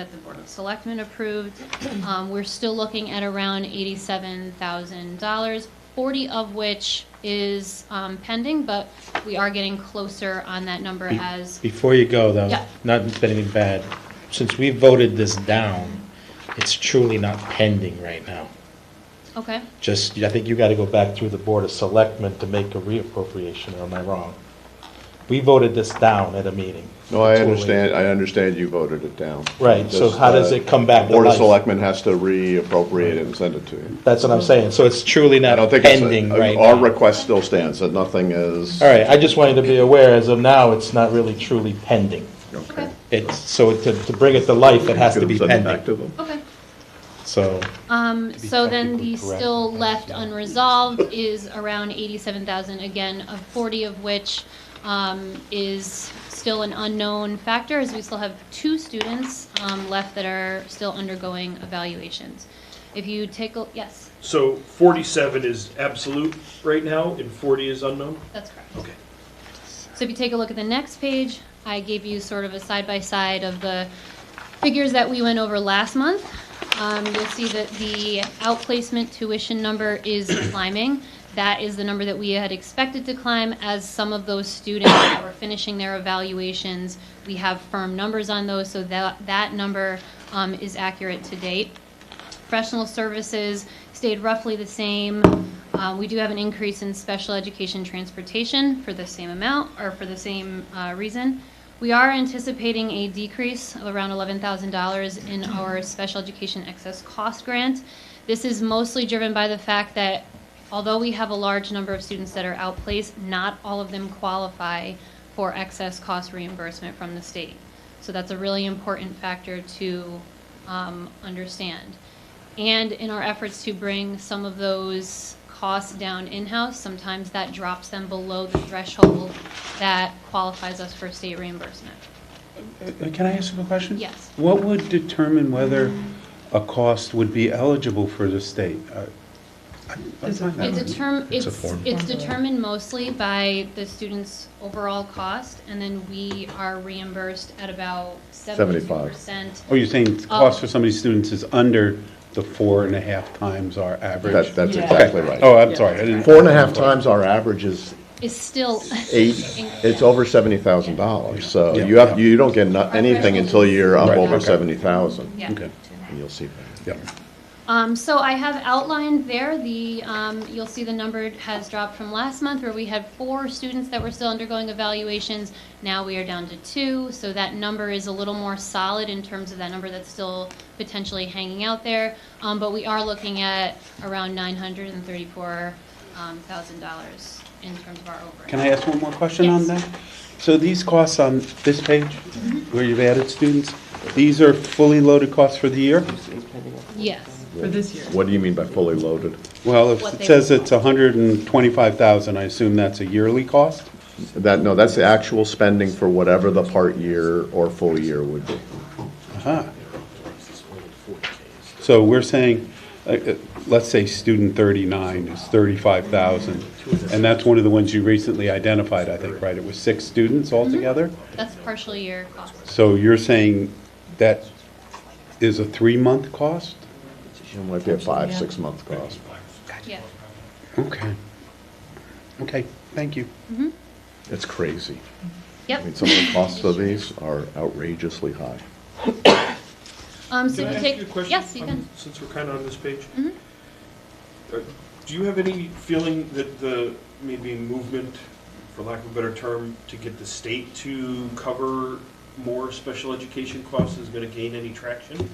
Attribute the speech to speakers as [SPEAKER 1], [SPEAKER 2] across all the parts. [SPEAKER 1] that the Board of Selectmen approved. Um, We're still looking at around $87,000, 40 of which is um, pending, but we are getting closer on that number as,
[SPEAKER 2] Before you go, though,
[SPEAKER 1] Yeah.
[SPEAKER 2] not that anything bad, since we voted this down, it's truly not pending right now.
[SPEAKER 1] okay?
[SPEAKER 2] Just, I think you got to go back through the Board of Selectmen to make a reappropriation, or am I wrong? We voted this down at a meeting.
[SPEAKER 3] No, I
[SPEAKER 2] Totally.
[SPEAKER 3] understand, I understand you voted it down.
[SPEAKER 2] Right, so
[SPEAKER 3] Just,
[SPEAKER 2] how does
[SPEAKER 3] uh,
[SPEAKER 2] it come back to
[SPEAKER 3] Board of
[SPEAKER 2] life?
[SPEAKER 3] Selectmen has to reappropriate it and send it to you.
[SPEAKER 2] That's what I'm saying, so it's truly
[SPEAKER 3] I
[SPEAKER 2] not
[SPEAKER 3] don't think it's,
[SPEAKER 2] pending
[SPEAKER 3] uh,
[SPEAKER 2] right
[SPEAKER 3] our
[SPEAKER 2] now.
[SPEAKER 3] request still stands, that nothing is.
[SPEAKER 2] All right, I just wanted to be aware, as of now, it's not really truly pending.
[SPEAKER 3] Okay.
[SPEAKER 2] It's, so to, to bring it to life, it has to be
[SPEAKER 3] Give them back
[SPEAKER 2] pending,
[SPEAKER 3] to them.
[SPEAKER 1] Okay.
[SPEAKER 2] so.
[SPEAKER 1] Um, so then
[SPEAKER 2] technically
[SPEAKER 1] the
[SPEAKER 2] correct,
[SPEAKER 1] still
[SPEAKER 2] I
[SPEAKER 1] left
[SPEAKER 2] understand.
[SPEAKER 1] unresolved is around eighty-seven thousand, again, of forty of which, um, is still an unknown factor, as we still have two students, um, left that are still undergoing evaluations. If you take, a yes,
[SPEAKER 4] So 47 is absolute right now, and 40 is unknown?
[SPEAKER 1] that's correct.
[SPEAKER 4] Okay.
[SPEAKER 1] So if you take a look at the next page, I gave you sort of a side-by-side of the figures that we went over last month. Um, You'll see that the outplacement tuition number is climbing. That is the number that we had expected to climb as some of those students that were finishing their evaluations. We have firm numbers on those, so that, that number um, is accurate to date. Professional services stayed roughly the same. Uh, We do have an increase in special education transportation for the same amount, or for the same uh, reason. We are anticipating a decrease of around $11,000 in our special education excess cost grant. This is mostly driven by the fact that although we have a large number of students that are outplaced, not all of them qualify for excess cost reimbursement from the state. So that's a really important factor to um, understand. And in our efforts to bring some of those costs down in-house, sometimes that drops them below the threshold that qualifies us for state reimbursement.
[SPEAKER 5] Uh, Can I ask you a question?
[SPEAKER 1] Yes.
[SPEAKER 5] What would determine whether a cost would be eligible for the state? Uh, I- I find that-
[SPEAKER 1] It determ, it's,
[SPEAKER 5] It's a form.
[SPEAKER 1] it's determined mostly by the student's overall cost, and then we are reimbursed at about seventy-two
[SPEAKER 3] Seventy-five.
[SPEAKER 1] percent.
[SPEAKER 5] Oh, you're saying the cost for some of these students is under the four and a half times our average?
[SPEAKER 3] That, that's
[SPEAKER 6] Yeah.
[SPEAKER 3] exactly
[SPEAKER 5] Okay.
[SPEAKER 3] right.
[SPEAKER 5] Oh, I'm sorry. I didn't-
[SPEAKER 3] Four and a half times our average is
[SPEAKER 1] Is still.
[SPEAKER 3] eight, it's over seventy thousand dollars, so
[SPEAKER 5] Yeah.
[SPEAKER 3] you have, you don't get no-
[SPEAKER 1] Our
[SPEAKER 3] anything
[SPEAKER 1] threshold
[SPEAKER 3] until
[SPEAKER 1] is-
[SPEAKER 3] you're up
[SPEAKER 1] Right,
[SPEAKER 3] over
[SPEAKER 1] okay.
[SPEAKER 3] seventy thousand.
[SPEAKER 1] Yeah.
[SPEAKER 5] Okay,
[SPEAKER 3] And you'll see that.
[SPEAKER 5] yeah.
[SPEAKER 1] Um, so I have outlined there the, um, you'll see the number has dropped from last month where we had four students that were still undergoing evaluations. Now we are down to two, so that number is a little more solid in terms of that number that's still potentially hanging out there. Um, but we are looking at around nine hundred and thirty-four um, thousand dollars in terms of our overage.
[SPEAKER 5] Can I ask one more question on
[SPEAKER 1] Yes. Mm-hmm.
[SPEAKER 5] that? So these costs on this page, where you've added students, these are fully loaded costs for the year?
[SPEAKER 1] Yes,
[SPEAKER 6] For this year.
[SPEAKER 3] What do you mean by fully loaded?
[SPEAKER 5] Well, if
[SPEAKER 1] What
[SPEAKER 5] it
[SPEAKER 1] they-
[SPEAKER 5] says it's 125,000, I assume that's a yearly cost?
[SPEAKER 3] That, no, that's the actual spending for whatever the part year or full year would be.
[SPEAKER 5] Ah. So we're saying, uh, uh, let's say student 39 is 35,000, and that's one of the ones you recently identified, I think, right? It was six students altogether?
[SPEAKER 1] that's partial year cost.
[SPEAKER 5] So you're saying that is a three-month cost?
[SPEAKER 3] It might be a five, six-month cost.
[SPEAKER 1] Yeah,
[SPEAKER 5] Okay. Okay, thank you.
[SPEAKER 3] It's crazy. I
[SPEAKER 1] yep.
[SPEAKER 3] mean, some of the costs of these are outrageously high.
[SPEAKER 1] Um, so
[SPEAKER 4] Can
[SPEAKER 1] if
[SPEAKER 4] I
[SPEAKER 1] you
[SPEAKER 4] ask
[SPEAKER 1] take,
[SPEAKER 4] you a question?
[SPEAKER 1] yes, you
[SPEAKER 4] Um,
[SPEAKER 1] can. Mm-hmm.
[SPEAKER 4] Since we're kind of on this page? Uh, Do you have any feeling that the, maybe movement, for lack of a better term, to get the state to cover more special education costs is going to gain any traction?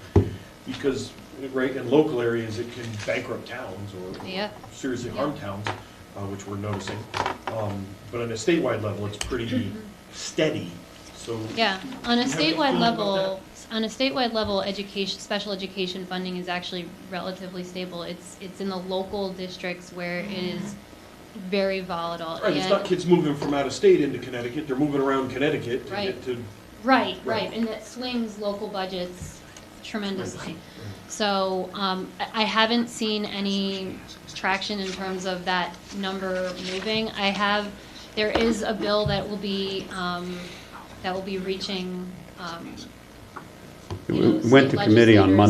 [SPEAKER 4] Because, right, in local areas, it can bankrupt towns or
[SPEAKER 1] Yeah.
[SPEAKER 4] seriously harm towns, uh, which we're noticing. Um, But on a statewide level, it's pretty
[SPEAKER 1] Mm-hmm.
[SPEAKER 4] steady, so.
[SPEAKER 1] Yeah, on a
[SPEAKER 4] Do you have any
[SPEAKER 1] statewide
[SPEAKER 4] feeling about
[SPEAKER 1] level, on a statewide level, education, special education funding is actually relatively stable. It's, it's in the local districts where it is very volatile.
[SPEAKER 4] Right, it's
[SPEAKER 1] And-
[SPEAKER 4] not kids moving from out of state into Connecticut, they're moving around Connecticut to
[SPEAKER 1] Right.
[SPEAKER 4] get to,
[SPEAKER 1] Right, right,
[SPEAKER 4] Right.
[SPEAKER 1] and that swings local budgets tremendously. So um, I I haven't seen any traction in terms of that number moving. I have, there is a bill that will be, um, that will be reaching um,
[SPEAKER 5] It
[SPEAKER 1] you know,
[SPEAKER 5] w- went to
[SPEAKER 1] state
[SPEAKER 5] committee
[SPEAKER 1] legislators.
[SPEAKER 5] on Monday.